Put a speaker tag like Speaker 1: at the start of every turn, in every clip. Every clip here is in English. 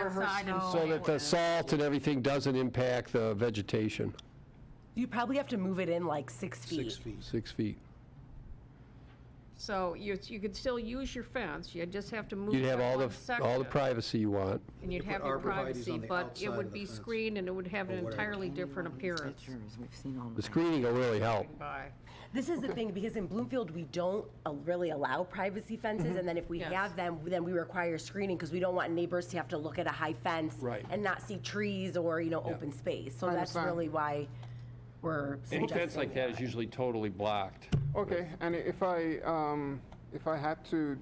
Speaker 1: outside and
Speaker 2: rehearsal.
Speaker 1: play
Speaker 3: So that the
Speaker 1: with.
Speaker 3: salt and everything doesn't impact the vegetation,
Speaker 2: You probably have to move it in like six feet.
Speaker 4: Six feet.
Speaker 3: six feet.
Speaker 1: So you, you could still use your fence, you just have to move
Speaker 3: You'd have
Speaker 1: that one
Speaker 3: all the, all the
Speaker 1: section,
Speaker 3: privacy you want.
Speaker 1: And you'd
Speaker 4: You could
Speaker 1: have your
Speaker 4: put arborvitaes on
Speaker 1: privacy,
Speaker 4: the
Speaker 1: but
Speaker 4: outside
Speaker 1: it
Speaker 4: of
Speaker 1: would
Speaker 4: the
Speaker 1: be
Speaker 4: fence.
Speaker 1: screened and it would have an
Speaker 4: Or whatever.
Speaker 1: entirely different appearance.
Speaker 5: We've seen all
Speaker 3: The screening will really help.
Speaker 1: By,
Speaker 2: This is the thing, because in Bloomfield, we don't uh, really allow privacy fences, and then if we
Speaker 1: Yes.
Speaker 2: have them, then we require screening, because we don't want neighbors to have to look at a high fence
Speaker 3: Right.
Speaker 2: and not see trees or, you know, open space. So that's
Speaker 6: understand.
Speaker 2: really why we're
Speaker 7: Any fence
Speaker 2: suggesting.
Speaker 7: like that is usually totally blocked.
Speaker 6: Okay, and if I, um, if I had to,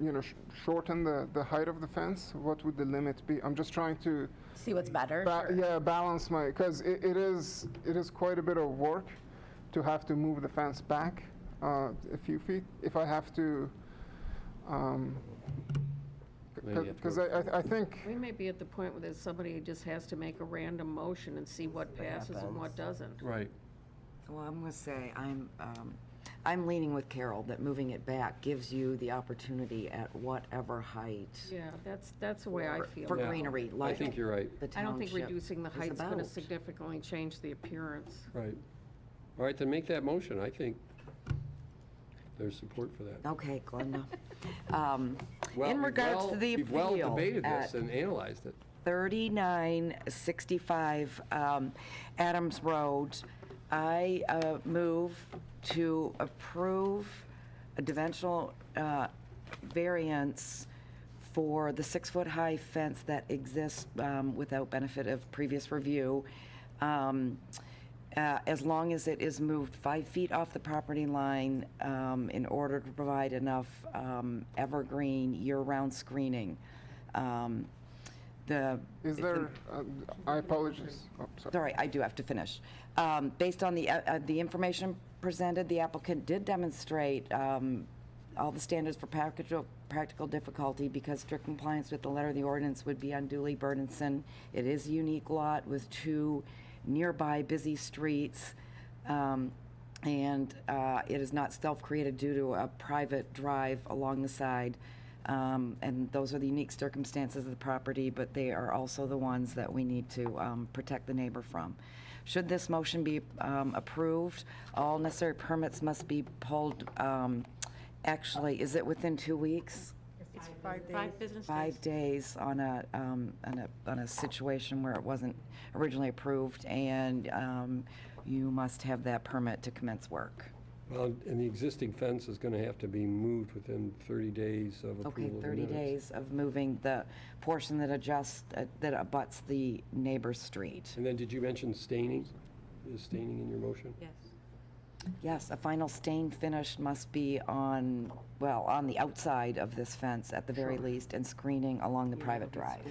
Speaker 6: you know, sh- shorten the, the height of the fence, what would the limit be? I'm just trying to,
Speaker 2: See what's better?
Speaker 6: ba-
Speaker 2: Sure.
Speaker 6: yeah, balance my, because it, it is, it is quite a bit of work to have to move the fence back uh, a few feet. If I have to, um,
Speaker 7: Maybe you have to
Speaker 6: because
Speaker 7: go-
Speaker 6: I, I- I think,
Speaker 1: we may be at the point where there's somebody who just has to make a random motion and see what passes and what doesn't.
Speaker 7: Right.
Speaker 5: Well, I'm gonna say, I'm, um, I'm leaning with Carol that moving it back gives you the opportunity at whatever height
Speaker 1: Yeah, that's, that's the way I feel.
Speaker 5: for
Speaker 1: about it.
Speaker 5: greenery, like
Speaker 7: think you're right.
Speaker 5: the
Speaker 1: I don't think
Speaker 5: township
Speaker 1: reducing the
Speaker 5: is
Speaker 1: height's gonna
Speaker 5: about.
Speaker 1: significantly change the appearance.
Speaker 3: Right. All right, then make that motion, I think. There's support for that.
Speaker 5: Okay, Glenda. Um,
Speaker 3: Well,
Speaker 5: In
Speaker 3: we've
Speaker 5: regards
Speaker 3: well-
Speaker 5: to the
Speaker 3: We've well
Speaker 5: appeal
Speaker 3: debated this
Speaker 5: at
Speaker 3: and analyzed it.
Speaker 5: 3965 um, Adams Road, I uh, move to approve a dimensional uh, variance for the six-foot-high fence that exists um, without benefit of previous review, um, uh, as long as it is moved five feet off the property line um, in order to provide enough um, evergreen, year-round screening. Um, The,
Speaker 6: is there, uh, I apologize, oh, sorry.
Speaker 5: sorry, I do have to finish. Um, Based on the, uh, uh, the information presented, the applicant did demonstrate um, all the standards for practical, practical difficulty because strict compliance with the letter of the ordinance would be unduly burdensome. It is a unique lot with two nearby busy streets. um, And uh, it is not self-created due to a private drive along the side. Um, And those are the unique circumstances of the property, but they are also the ones that we need to um, protect the neighbor from. Should this motion be um, approved, all necessary permits must be pulled, um, actually, is it within two weeks?
Speaker 8: Five business days.
Speaker 5: Five days on a, um, on a, on a situation where it wasn't originally approved, and um, you must have that permit to commence work.
Speaker 3: Well, and the existing fence is going to have to be moved within 30 days of
Speaker 5: Okay,
Speaker 3: approval of the
Speaker 5: 30
Speaker 3: minutes.
Speaker 5: days of moving the portion that adjusts, uh, that abuts the neighbor's street.
Speaker 3: And then did you mention staining? Is staining in your motion?
Speaker 8: Yes.
Speaker 5: Yes, a final stain finish must be on, well, on the outside of this fence at the very least, and screening along the private drive.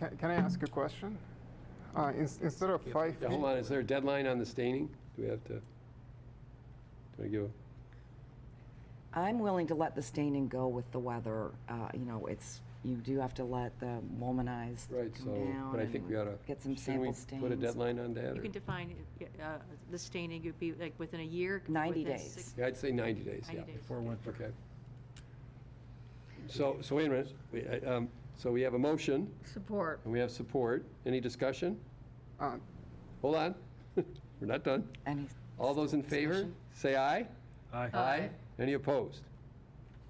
Speaker 6: Can can I ask a question? Uh, ins- Instead of five
Speaker 3: Yeah,
Speaker 6: feet,
Speaker 3: hold on, is there a deadline on the staining? Do we have to? Do I give,
Speaker 5: I'm willing to let the staining go with the weather, uh, you know, it's, you do have to let the womanized
Speaker 3: right,
Speaker 5: come
Speaker 3: so,
Speaker 5: down
Speaker 3: but I think we ought
Speaker 5: and
Speaker 3: to.
Speaker 5: get some sample
Speaker 3: Put a
Speaker 5: stains.
Speaker 3: deadline on that?
Speaker 8: You
Speaker 3: or-
Speaker 8: can define uh, uh, the staining, it'd be like within a year.
Speaker 5: 90
Speaker 8: within
Speaker 5: days.
Speaker 8: six-
Speaker 3: Yeah, I'd say 90 days, yeah.
Speaker 8: 90 days.
Speaker 3: Okay. So, so wait a minute, We, uh, um, so we have a motion,
Speaker 1: Support.
Speaker 3: and we have support. Any discussion?
Speaker 6: uh,
Speaker 3: Hold on, we're not done.
Speaker 5: And he's-
Speaker 3: All those in favor, say aye. Aye. Aye. Any opposed?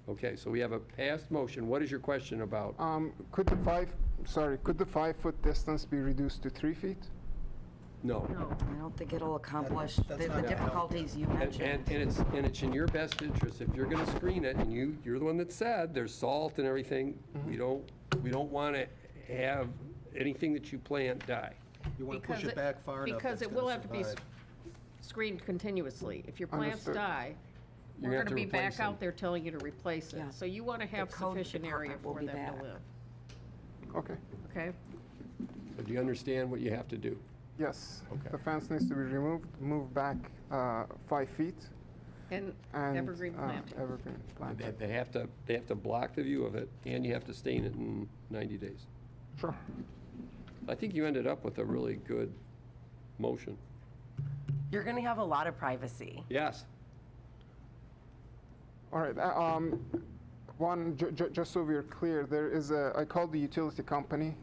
Speaker 3: Okay, so we have a passed motion. What is your question about?
Speaker 6: um, could the five, sorry, could the five-foot distance be reduced to three feet?
Speaker 3: No.
Speaker 5: I don't think it'll accomplish
Speaker 4: that's not
Speaker 5: the the
Speaker 4: gonna help.
Speaker 5: difficulties you
Speaker 3: And,
Speaker 5: mentioned.
Speaker 3: and and it's, and it's in your best interest, if you're gonna screen it, and you, you're the one that said, there's salt and everything, we don't, we don't wanna have anything that you plant die.
Speaker 4: You want to
Speaker 1: Because
Speaker 4: push it back far enough.
Speaker 1: Because
Speaker 4: that
Speaker 1: it
Speaker 4: it's
Speaker 1: will
Speaker 4: gonna
Speaker 1: have to be s-
Speaker 4: survive.
Speaker 1: screened continuously. If your plants
Speaker 6: Understood.
Speaker 1: die,
Speaker 3: You're
Speaker 1: we're
Speaker 3: gonna
Speaker 1: going
Speaker 3: have
Speaker 1: to
Speaker 3: to
Speaker 1: be
Speaker 3: replace
Speaker 1: back
Speaker 3: them.
Speaker 1: out there telling you to replace it.
Speaker 5: Yeah.
Speaker 1: So you want to have
Speaker 5: code
Speaker 1: sufficient area
Speaker 5: department will
Speaker 1: for
Speaker 5: be
Speaker 1: them to
Speaker 5: back.
Speaker 1: live,
Speaker 6: Okay,
Speaker 1: okay?
Speaker 3: So Do you understand what you have to do?
Speaker 6: yes. The fence needs to be removed, moved back uh, five feet,
Speaker 1: And
Speaker 6: and...
Speaker 1: evergreen
Speaker 6: uh,
Speaker 1: planting.
Speaker 6: Evergreen
Speaker 3: They,
Speaker 6: planting,
Speaker 3: they have to, they have to block the view of it, and you have to stain it in ninety days.
Speaker 6: sure.
Speaker 3: I think you ended up with a really good motion.
Speaker 2: You're gonna have a lot of privacy.
Speaker 3: Yes.
Speaker 6: All right, uh, um, one, ju- ju- just so we're clear, there is a, I called the utility company